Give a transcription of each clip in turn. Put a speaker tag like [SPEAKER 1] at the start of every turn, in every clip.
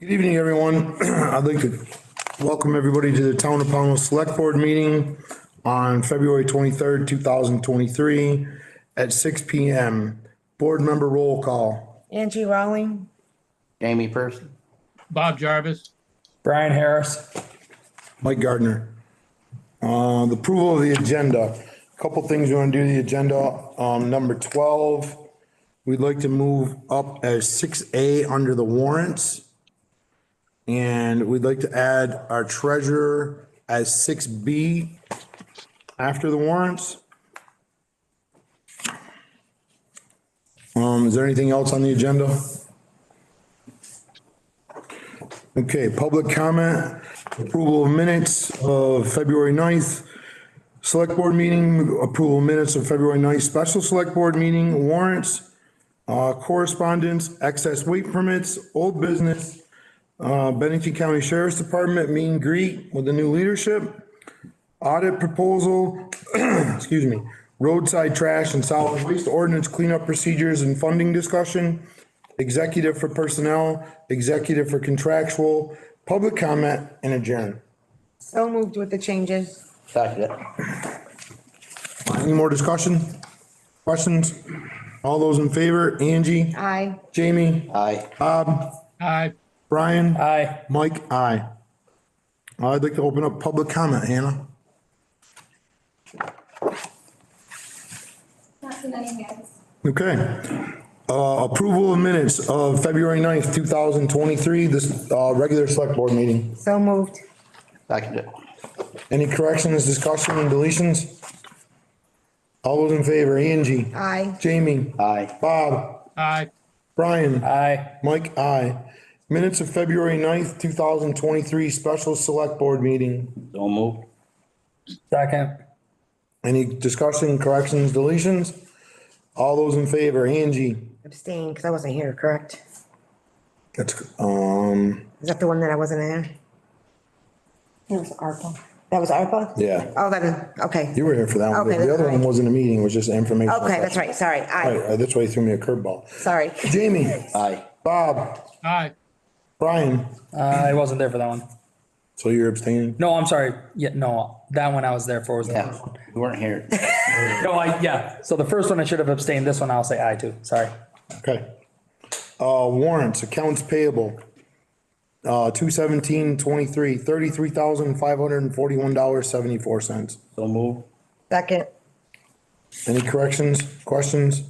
[SPEAKER 1] Good evening, everyone. I'd like to welcome everybody to the Town of Pownell Select Board meeting on February twenty-third, two thousand twenty-three at six P M. Board member roll call.
[SPEAKER 2] Angie Rowling,
[SPEAKER 3] Jamie Person,
[SPEAKER 4] Bob Jarvis,
[SPEAKER 5] Brian Harris.
[SPEAKER 1] Mike Gardner. Uh, the approval of the agenda. Couple things we want to do to the agenda. Um, number twelve, we'd like to move up as six A under the warrants. And we'd like to add our treasurer as six B after the warrants. Um, is there anything else on the agenda? Okay, public comment, approval of minutes of February 9th, select board meeting, approval of minutes of February 9th, special select board meeting, warrants, uh, correspondence, excess weight permits, old business, uh, Bennington County Sheriff's Department meet and greet with the new leadership, audit proposal, excuse me, roadside trash and solid waste ordinance cleanup procedures and funding discussion, executive for personnel, executive for contractual, public comment, and adjourn.
[SPEAKER 2] so moved with the changes.
[SPEAKER 3] second it.
[SPEAKER 1] Any more discussion? Questions? All those in favor? Angie?
[SPEAKER 2] Aye.
[SPEAKER 1] Jamie?
[SPEAKER 3] Aye,
[SPEAKER 4] aye,
[SPEAKER 1] Brian?
[SPEAKER 5] Aye.
[SPEAKER 1] Mike? Aye. I'd like to open up public comment, Hannah.
[SPEAKER 6] Not too many hands.
[SPEAKER 1] Okay. Uh, approval of minutes of February 9th, two thousand twenty-three, this, uh, regular select board meeting.
[SPEAKER 2] So moved.
[SPEAKER 3] second it.
[SPEAKER 1] Any corrections, discussion, and deletions? All those in favor? Angie?
[SPEAKER 2] Aye.
[SPEAKER 1] Jamie?
[SPEAKER 3] Aye,
[SPEAKER 1] Bob?
[SPEAKER 4] aye,
[SPEAKER 1] Brian?
[SPEAKER 5] Aye.
[SPEAKER 1] Mike, aye. Minutes of February 9th, two thousand twenty-three, special select board meeting.
[SPEAKER 3] so moved.
[SPEAKER 5] Second.
[SPEAKER 1] Any discussion, corrections, deletions? All those in favor, Angie?
[SPEAKER 2] Abstain, because I wasn't here, correct?
[SPEAKER 1] That's, um,
[SPEAKER 2] Is that the one that I wasn't there? That was ARPA. That was ARPA?
[SPEAKER 1] yeah,
[SPEAKER 2] Oh, that is, okay.
[SPEAKER 1] you were here for that one. but
[SPEAKER 2] Okay,
[SPEAKER 1] The other
[SPEAKER 2] that's
[SPEAKER 1] one
[SPEAKER 2] right.
[SPEAKER 1] wasn't a meeting, it was just information.
[SPEAKER 2] Okay, that's right, sorry, aye,
[SPEAKER 1] Right, right, that's why you threw me a curveball.
[SPEAKER 2] sorry.
[SPEAKER 1] Jamie,
[SPEAKER 3] Aye,
[SPEAKER 1] Bob,
[SPEAKER 4] aye,
[SPEAKER 1] Brian,
[SPEAKER 5] I Uh, wasn't there for that one.
[SPEAKER 1] so you're abstaining?
[SPEAKER 5] No, I'm sorry. Yeah, no, that one I was there for was the
[SPEAKER 3] yeah,
[SPEAKER 5] first
[SPEAKER 3] you weren't here.
[SPEAKER 5] one. No, I, yeah. So the first one I should have abstained. This one I'll say aye to. Sorry.
[SPEAKER 1] Okay. Uh, warrants, accounts payable. Uh, two seventeen twenty-three, thirty-three thousand five hundred and forty-one dollars seventy-four cents.
[SPEAKER 3] So moved.
[SPEAKER 2] Second,
[SPEAKER 1] Any corrections, questions?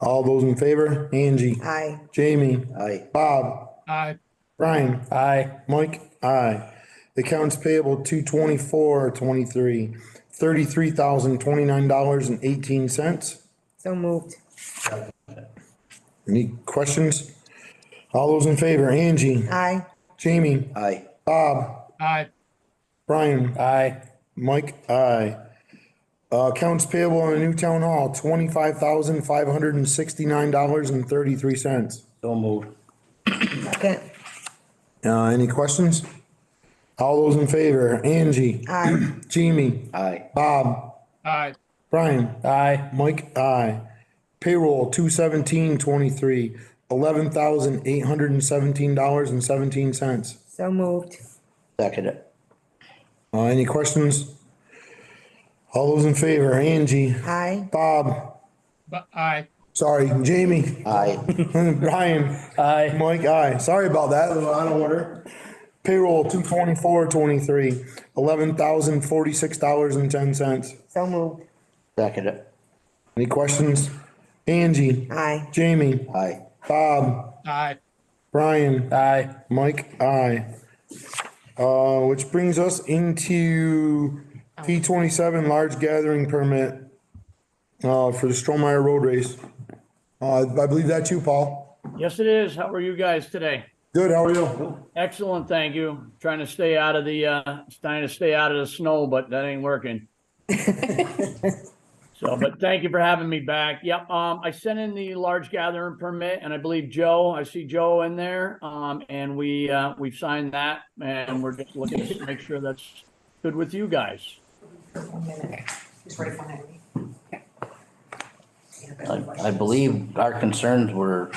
[SPEAKER 1] All those in favor? Angie,
[SPEAKER 2] aye,
[SPEAKER 1] Jamie,
[SPEAKER 3] Aye,
[SPEAKER 1] Bob,
[SPEAKER 4] aye,
[SPEAKER 1] Brian,
[SPEAKER 5] Aye.
[SPEAKER 1] Mike, aye. Accounts payable two twenty-four twenty-three, thirty-three thousand twenty-nine dollars and eighteen cents.
[SPEAKER 2] so moved.
[SPEAKER 1] Any questions? All those in favor, Angie,
[SPEAKER 2] Aye,
[SPEAKER 1] Jamie,
[SPEAKER 3] aye,
[SPEAKER 4] aye,
[SPEAKER 1] Brian,
[SPEAKER 5] Aye.
[SPEAKER 1] Mike, aye. Uh, accounts payable on the new town hall, twenty-five thousand five hundred and sixty-nine dollars and thirty-three cents.
[SPEAKER 3] so moved.
[SPEAKER 2] second,
[SPEAKER 1] Uh, any questions? All those in favor, Angie,
[SPEAKER 2] aye,
[SPEAKER 1] Jamie,
[SPEAKER 3] Aye,
[SPEAKER 1] Bob,
[SPEAKER 4] aye,
[SPEAKER 1] Brian,
[SPEAKER 5] Aye.
[SPEAKER 1] Mike, aye. Payroll, two seventeen twenty-three, eleven thousand eight hundred and seventeen dollars and seventeen cents.
[SPEAKER 2] so moved.
[SPEAKER 3] second it.
[SPEAKER 1] Uh, any questions? All those in favor, Angie,
[SPEAKER 2] Aye,
[SPEAKER 1] Bob,
[SPEAKER 4] bu- aye,
[SPEAKER 1] sorry, Jamie,
[SPEAKER 3] Aye,
[SPEAKER 1] Brian,
[SPEAKER 5] Aye.
[SPEAKER 1] Mike, aye. Sorry about that, a little out of order. Payroll, two twenty-four twenty-three, eleven thousand forty-six dollars and ten cents.
[SPEAKER 2] so moved.
[SPEAKER 3] second it.
[SPEAKER 1] Any questions? Angie,
[SPEAKER 2] Aye,
[SPEAKER 1] Jamie,
[SPEAKER 3] Aye,
[SPEAKER 1] Bob,
[SPEAKER 4] aye,
[SPEAKER 1] Brian,
[SPEAKER 5] Aye.
[SPEAKER 1] Mike, aye. Uh, which brings us into P twenty-seven, large gathering permit, uh, for the Strohmeyer Road Race. Uh, I believe that's you, Paul.
[SPEAKER 7] Yes, it is. How are you guys today?
[SPEAKER 1] Good, how are you?
[SPEAKER 7] Excellent, thank you. Trying to stay out of the, uh, trying to stay out of the snow, but that ain't working. So, but thank you for having me back. Yep, um, I sent in the large gathering permit and I believe Joe, I see Joe in there. Um, and we, uh, we've signed that and we're just looking to make sure that's good with you guys.
[SPEAKER 3] I I believe our concerns were